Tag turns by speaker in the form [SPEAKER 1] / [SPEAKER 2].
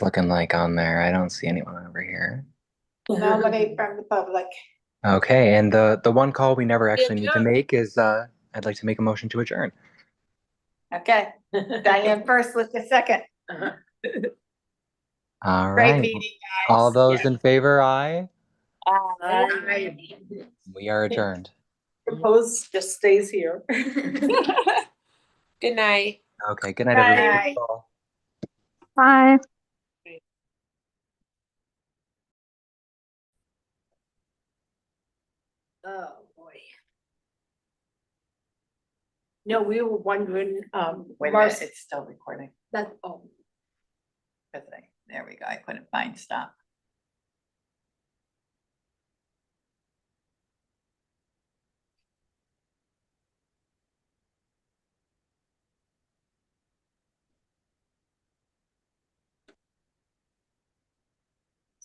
[SPEAKER 1] looking like on there? I don't see anyone over here.
[SPEAKER 2] Nominate from the public.
[SPEAKER 1] Okay, and the, the one call we never actually need to
[SPEAKER 3] adjourn.
[SPEAKER 1] make is, uh, I'd like to make a motion to adjourn.
[SPEAKER 2] Okay, Diane first with the second.
[SPEAKER 1] All
[SPEAKER 2] Great
[SPEAKER 1] right.
[SPEAKER 2] meeting.
[SPEAKER 1] All
[SPEAKER 2] guys.
[SPEAKER 1] those in favor, aye.
[SPEAKER 2] Aye.
[SPEAKER 1] We are adjourned.
[SPEAKER 3] Propose just stays here. Good night.
[SPEAKER 1] Okay, good night, everybody. Good
[SPEAKER 2] Bye.
[SPEAKER 1] call.
[SPEAKER 4] Bye.
[SPEAKER 3] Oh, boy. No, we were wondering, um,
[SPEAKER 2] Wait a minute,
[SPEAKER 3] Marcy,
[SPEAKER 2] it's still recording.
[SPEAKER 3] that, oh,
[SPEAKER 2] Good thing. There we go. I couldn't find stop.